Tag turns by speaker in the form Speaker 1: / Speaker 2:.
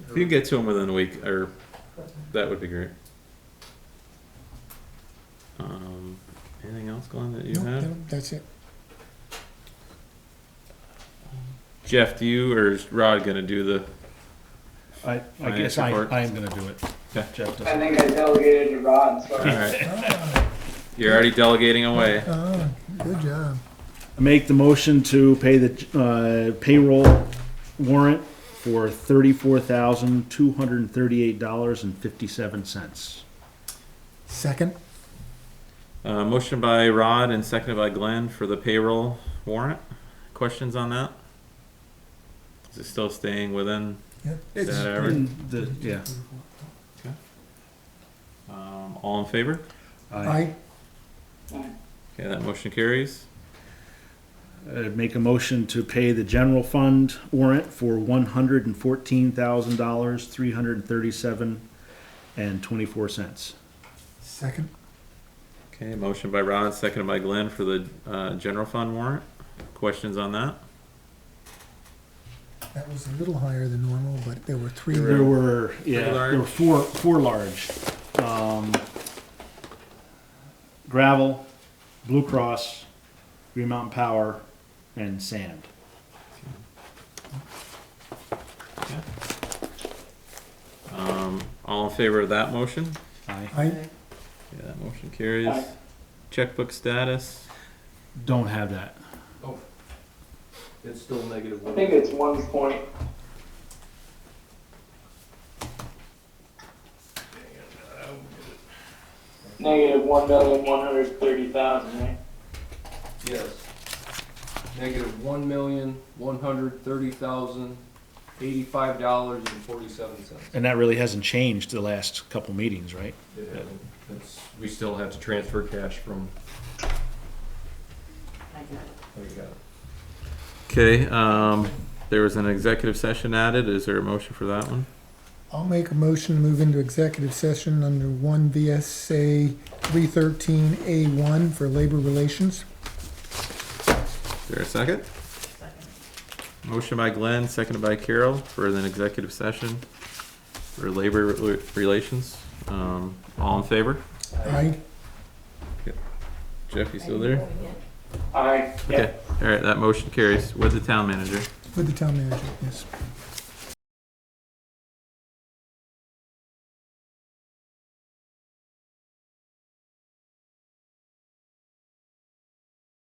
Speaker 1: If you can get to them within a week, or that would be great. Um, anything else, Glenn, that you
Speaker 2: Nope,
Speaker 1: have?
Speaker 2: nope, That's it.
Speaker 1: Jeff, do you or is Rod gonna do the?
Speaker 3: I, I
Speaker 1: Finance
Speaker 3: guess I,
Speaker 1: report.
Speaker 3: I am gonna do it.
Speaker 1: Okay.
Speaker 3: Jeff doesn't.
Speaker 4: I think I delegated to Rod, so.
Speaker 1: All right. You're already delegating away.
Speaker 2: Oh, good job.
Speaker 3: Make the motion to pay the uh, payroll warrant for thirty-four thousand, two hundred and thirty-eight dollars and fifty-seven cents.
Speaker 2: Second,
Speaker 1: Uh, motion by Rod and seconded by Glenn for the payroll warrant. Questions on that? Is it still staying within
Speaker 2: yeah.
Speaker 1: that average?
Speaker 3: Yeah.
Speaker 1: Um, all in favor?
Speaker 3: I
Speaker 2: I,
Speaker 1: Okay, that motion carries.
Speaker 3: uh, make a motion to pay the general fund warrant for one hundred and fourteen thousand dollars, three hundred and thirty-seven and twenty-four cents.
Speaker 2: second,
Speaker 1: Okay, motion by Rod, seconded by Glenn for the, uh, general fund warrant. Questions on that?
Speaker 2: that was a little higher than normal, but there were three.
Speaker 3: There were, yeah,
Speaker 1: Three large.
Speaker 3: there were four, four large. Um, gravel, Blue Cross, Green Mountain Power, and sand.
Speaker 1: Um, all in favor of that motion?
Speaker 3: I
Speaker 2: I,
Speaker 1: Yeah, that motion carries.
Speaker 4: Aye.
Speaker 1: Checkbook status,
Speaker 3: don't have that.
Speaker 5: It's still negative
Speaker 4: I
Speaker 5: one.
Speaker 4: think it's one point, negative one million, one hundred thirty thousand, right?
Speaker 5: Yes. Negative one million, one hundred thirty thousand, eighty-five dollars and forty-seven cents.
Speaker 3: And that really hasn't changed the last couple meetings, right?
Speaker 5: We still have to transfer cash from.
Speaker 1: okay, um, there was an executive session added, is there a motion for that one?
Speaker 2: I'll make a motion to move into executive session under one VSA three thirteen A one for labor relations.
Speaker 1: Is there a second? Motion by Glenn, seconded by Carol for an executive session for labor re- relations, um, all in favor?
Speaker 2: I,
Speaker 1: Jeff, you still there?
Speaker 4: Alright, yeah.
Speaker 1: Okay, alright, that motion carries with the town manager.
Speaker 2: with the town manager, yes.